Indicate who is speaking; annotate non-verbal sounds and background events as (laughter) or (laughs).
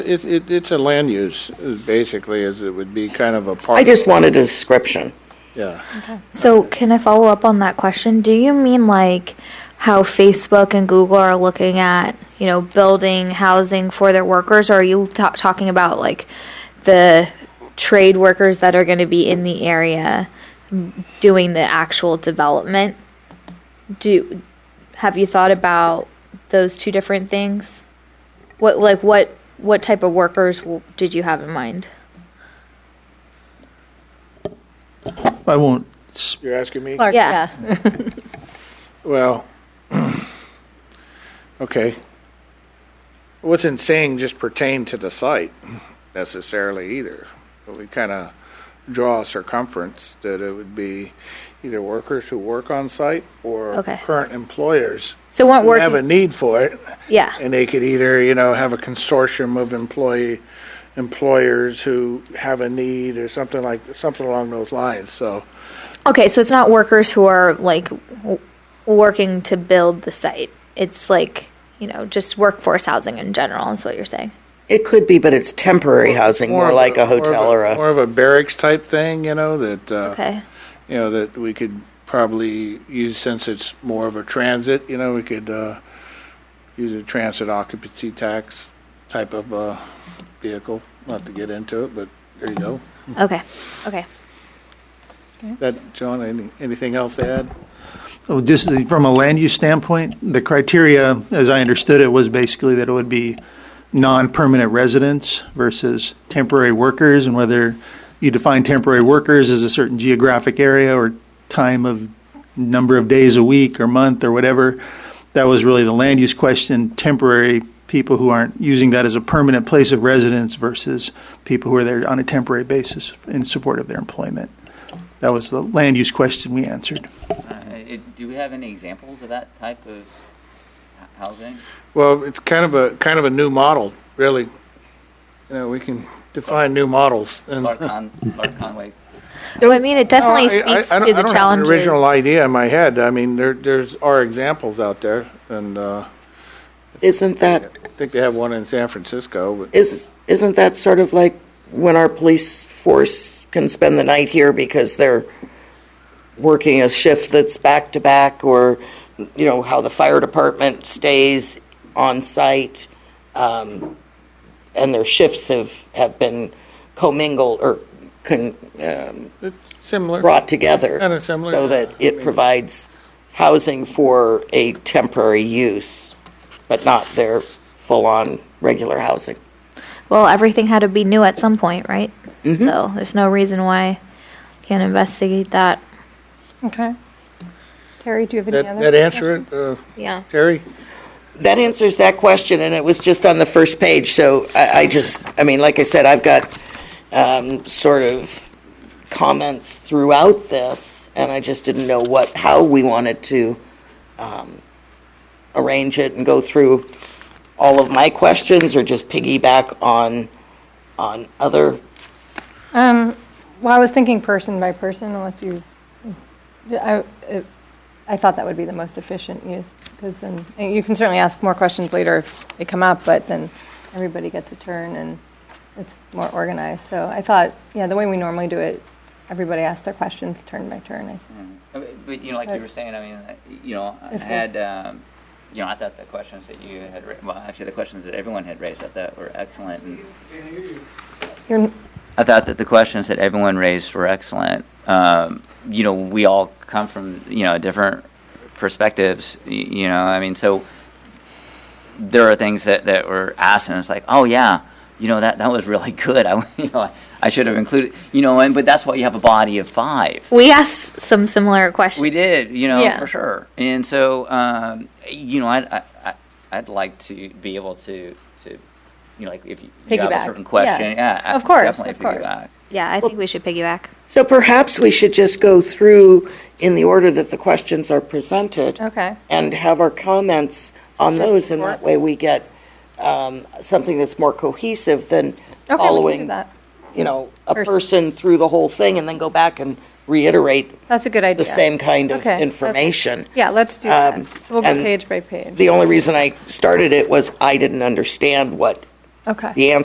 Speaker 1: It, it, it's a land use, is basically, as it would be kind of a park.
Speaker 2: I just wanted a description.
Speaker 1: Yeah.
Speaker 3: So, can I follow up on that question? Do you mean like how Facebook and Google are looking at, you know, building housing for their workers, or are you th- talking about like the trade workers that are going to be in the area doing the actual development? Do have you thought about those two different things? What like what what type of workers w- did you have in mind?
Speaker 4: I won't, s-
Speaker 1: You're asking me?
Speaker 5: Clark,
Speaker 3: Yeah.
Speaker 5: yeah.
Speaker 1: Well, (clears throat) okay. It Wasn't saying just pertain to the site necessarily either. But we kind of draw a circumference that it would be either workers who work on site or
Speaker 3: Okay.
Speaker 1: current employers
Speaker 3: So, weren't
Speaker 1: who have a
Speaker 3: (laughs) working.
Speaker 1: need for it.
Speaker 3: Yeah.
Speaker 1: And they could either, you know, have a consortium of employee, employers who have a need or something like, something along those lines, so.
Speaker 3: Okay, so it's not workers who are like w- working to build the site. It's like, you know, just workforce housing in general is what you're saying.
Speaker 2: It could be, but it's temporary housing, more
Speaker 1: of
Speaker 2: like a
Speaker 1: more of
Speaker 2: hotel or a,
Speaker 1: More of a barracks type thing, you know, that, uh,
Speaker 3: Okay.
Speaker 1: you know, that we could probably use, since it's more of a transit, you know, we could, uh, use a transit occupancy tax type of, uh, vehicle, not to get into it, but there you go.
Speaker 3: Okay. Okay.
Speaker 1: That, John, any, anything else to add?
Speaker 4: oh, just the- from a land use standpoint, the criteria, as I understood it, was basically that it would be non-permanent residents versus temporary workers, and whether you define temporary workers as a certain geographic area or time of, number of days a week or month or whatever. That was really the land use question, temporary people who aren't using that as a permanent place of residence versus people who are there on a temporary basis in support of their employment. That was the land use question we answered.
Speaker 6: Uh, it- Do we have any examples of that type of h- housing?
Speaker 1: Well, it's kind of a, kind of a new model, really. You know, we can define new models and.
Speaker 6: Clark Con- Clark Conway
Speaker 3: Well, I mean, it definitely
Speaker 1: No, I- I-
Speaker 3: speaks
Speaker 1: I don't-
Speaker 3: to the
Speaker 1: I don't have an
Speaker 3: challenges.
Speaker 1: original idea in my head. I mean, there, there's, are examples out there, and uh,
Speaker 2: isn't that,
Speaker 1: I think they have one in San Francisco, but
Speaker 2: is, isn't that sort of like when our police force can spend the night here because they're working a shift that's back to back or, you know, how the fire department stays on site, um, and their shifts have, have been commingled or con, um,
Speaker 1: it's similar.
Speaker 2: brought together.
Speaker 1: Kinda similar,
Speaker 2: So
Speaker 1: yeah.
Speaker 2: that it provides housing for a temporary use, but not their full-on regular housing.
Speaker 3: Well, everything had to be new at some point, right?
Speaker 1: Mm-hmm.
Speaker 3: So, there's no reason why I can't investigate that.
Speaker 5: Okay. Terry, do you have any
Speaker 1: That,
Speaker 5: other?
Speaker 1: that answer it, uh,
Speaker 3: Yeah.
Speaker 1: Terry?
Speaker 2: That answers that question, and it was just on the first page, so I, I just, I mean, like I said, I've got, um, sort of comments throughout this, and I just didn't know what, how we wanted to, um, arrange it and go through all of my questions, or just piggyback on, on other
Speaker 5: Um, well, I was thinking person by person, unless you, I, it- I thought that would be the most efficient use, because then, and you can certainly ask more questions later if they come up, but then everybody gets a turn and it's more organized. So I thought, yeah, the way we normally do it, everybody asks their questions turn by turn. I-
Speaker 6: Uh, But, but, you know, like you
Speaker 5: Right.
Speaker 6: were saying, I mean, uh, you know, I
Speaker 5: If
Speaker 6: had, um, you know, I thought the questions that you had, ra- well, actually, the questions that everyone had raised, I thought were excellent. and
Speaker 5: You're,
Speaker 6: I thought that the questions that everyone raised were excellent. Um, you know, we all come from you know different perspectives. y- You know, I mean, so there are things that, that were asked, and it's like, oh yeah, you know that that was really (laughs) good. I you know I, I should have included you know, and but that's why you have a body of five.
Speaker 3: We asked some similar questions.
Speaker 6: We did, you know,
Speaker 5: Yeah.
Speaker 6: for sure. And so, um, you know, I'd, I, I- I'd like to be able to, to you know, like if you, you have
Speaker 5: Piggyback.
Speaker 6: a certain question,
Speaker 5: Yeah.
Speaker 6: yeah,
Speaker 5: Of course,
Speaker 6: definitely
Speaker 5: of course.
Speaker 6: piggyback.
Speaker 3: yeah, I think we should piggyback.
Speaker 2: So perhaps we should just go through in the order that the questions are presented
Speaker 5: okay.
Speaker 2: and have our comments on those, and that way we get um, something that's more cohesive than
Speaker 5: Okay, we can do
Speaker 2: following,
Speaker 5: that.
Speaker 2: you know, a
Speaker 5: Person.
Speaker 2: person through the whole thing and then go back and reiterate
Speaker 5: That's a good idea.
Speaker 2: the same kind of
Speaker 5: Okay, that's-
Speaker 2: information.
Speaker 5: Yeah, let's do that.
Speaker 2: Um,
Speaker 5: So we'll go
Speaker 2: and
Speaker 5: page by page.
Speaker 2: The only reason I started it was I didn't understand what
Speaker 5: Okay.
Speaker 2: the answer